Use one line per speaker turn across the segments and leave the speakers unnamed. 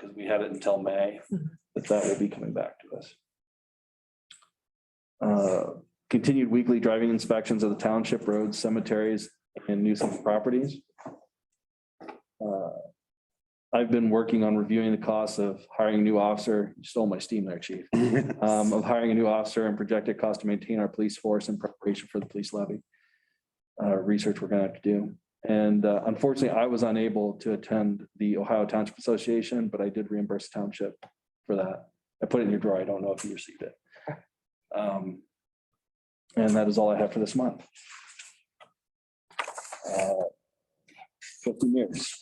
because we had it until May, but that will be coming back to us. Uh, Continued weekly driving inspections of the township roads, cemeteries, and nuisance properties. Uh, I've been working on reviewing the costs of hiring a new officer. You stole my steam there, chief. Um, Of hiring a new officer and projected cost to maintain our police force in preparation for the police levy. Uh, Research we're gonna have to do. And uh, unfortunately, I was unable to attend the Ohio Township Association, but I did reimburse the township for that. I put it in your drawer. I don't know if you received it. Um, And that is all I have for this month. Uh, Fifteen years.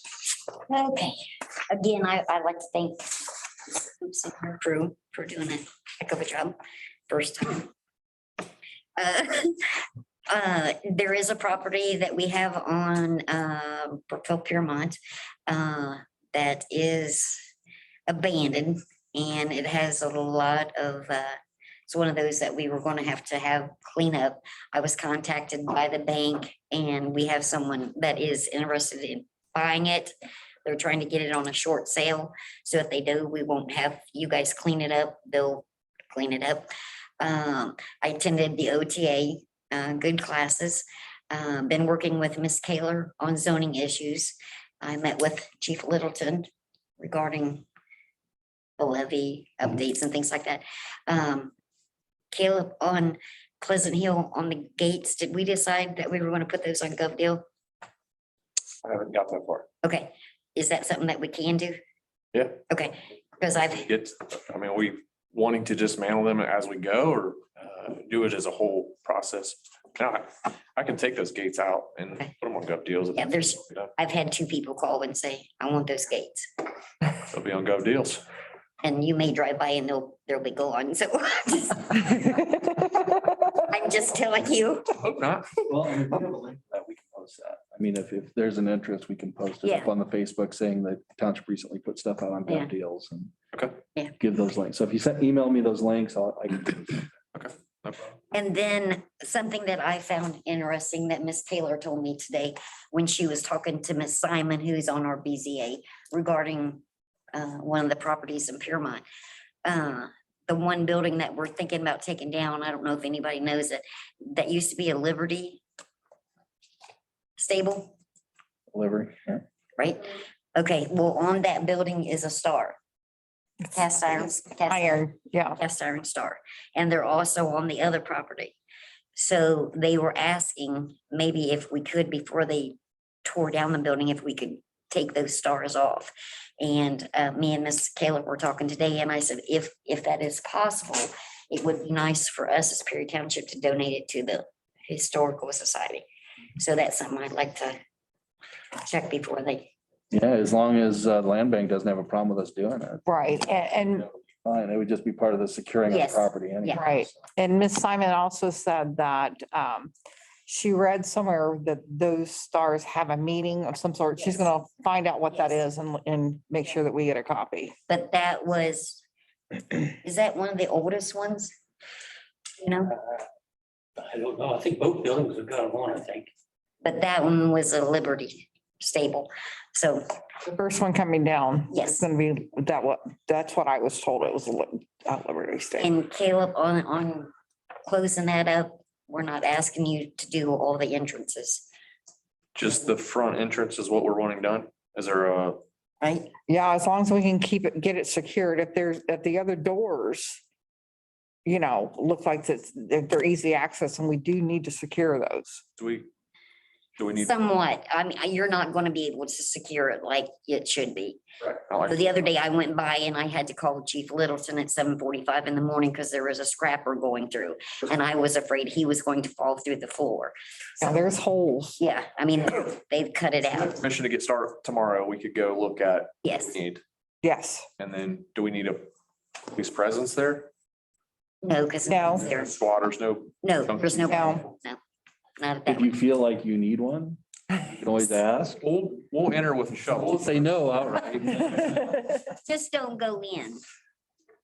Okay, again, I, I'd like to thank Oops, and her crew for doing a heck of a job first time. Uh, uh, There is a property that we have on uh, Brookville Piermont uh, that is abandoned and it has a lot of, uh, it's one of those that we were going to have to have clean up. I was contacted by the bank and we have someone that is interested in buying it. They're trying to get it on a short sale, so if they do, we won't have you guys clean it up, they'll clean it up. Um, I attended the OTA, uh, good classes, uh, been working with Miss Kaler on zoning issues. I met with Chief Littleton regarding the levy updates and things like that. Um, Caleb, on Pleasant Hill, on the gates, did we decide that we were gonna put those on Gov Deal?
I haven't got that far.
Okay, is that something that we can do?
Yeah.
Okay, because I've,
It's, I mean, we wanting to dismantle them as we go or uh, do it as a whole process. Now, I- I can take those gates out and put
Okay.
them on gov deals.
Yeah, there's- I've had two people call and say, I want those gates.
They'll be on gov deals.
And you may drive by and they'll, they'll be gone, so I'm just telling you,
Hope not.
Well, and if we have a link to that, we can post that. I mean, if, if there's an interest, we can post it up on the Facebook saying that township recently put stuff out on
Yeah.
bad deals and.
Okay.
Yeah.
Give those links. So if you send, email me those links, I'll, I can.
No problem.
And then something that I found interesting that Miss Taylor told me today when she was talking to Miss Simon, who's on our BZA regarding uh, one of the properties in Piermont. Uh, The one building that we're thinking about taking down, I don't know if anybody knows it, that used to be a Liberty stable,
Delivery.
right? Okay, well, on that building is a star. Cast iron. cast
Iron, yeah.
cast iron star, and they're also on the other property. So they were asking maybe if we could, before they tore down the building, if we could take those stars off. And uh, me and Miss Caleb were talking today, and I said, if, if that is possible, it would be nice for us as Perry Township to donate it to the Historical Society. So that's something I'd like to check before they,
Yeah, as long as uh, land bank doesn't have a problem with us doing it,
Right, a- and,
fine. It would just be part of the securing of the
Yes.
property anyway.
Yeah.
right, and Miss Simon also said that um, she read somewhere that those stars have a meeting of some sort. She's
Yes.
gonna find out what that
Yes.
is and, and make sure that we get a copy.
but that was, is that one of the oldest ones? You know?
I don't know. I think both buildings have got one, I think.
But that one was a Liberty stable. So,
The first one coming down.
Mm-hmm. Yes.
It's gonna be, that what, that's what I was told. It was a Lib- uh, Liberty State.
and Caleb, on, on closing that up, we're not asking you to do all the entrances,
Just the front entrance is what we're wanting done. Is there a,
right?
Yeah, as long as we can keep it, get it secured. If there's, if the other doors, you know, look like that's, that they're easy access and we do need to secure those.
do we, do we need?
Somewhat. I mean, you're not going to be able to secure it like it should be.
I
So
like-
The other day I went by and I had to call Chief Littleton at seven forty-five in the morning because there was a scrapper going through. And I was afraid he was going to fall through the floor.
Now, there's holes.
Yeah, I mean, they've cut it out.
Permission to get started tomorrow. We could go look at. what
Yes.
we Need,
Yes,
and then do we need a police presence there?
No, because
No.
there's,
Squatters, no
no, there's no,
No.
no, not at that.
If you feel like you need one, you can always ask.
We'll, we'll enter with a
We'll
shovel.
say no outright.
just don't go in.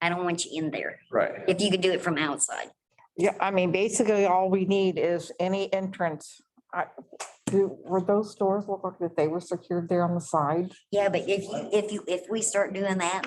I don't want you in there.
Right.
If you could do it from outside.
yeah, I mean, basically all we need is any entrance I, do, were those doors look like that they were secured there on the side?
Yeah, but if, you if you, if we start doing that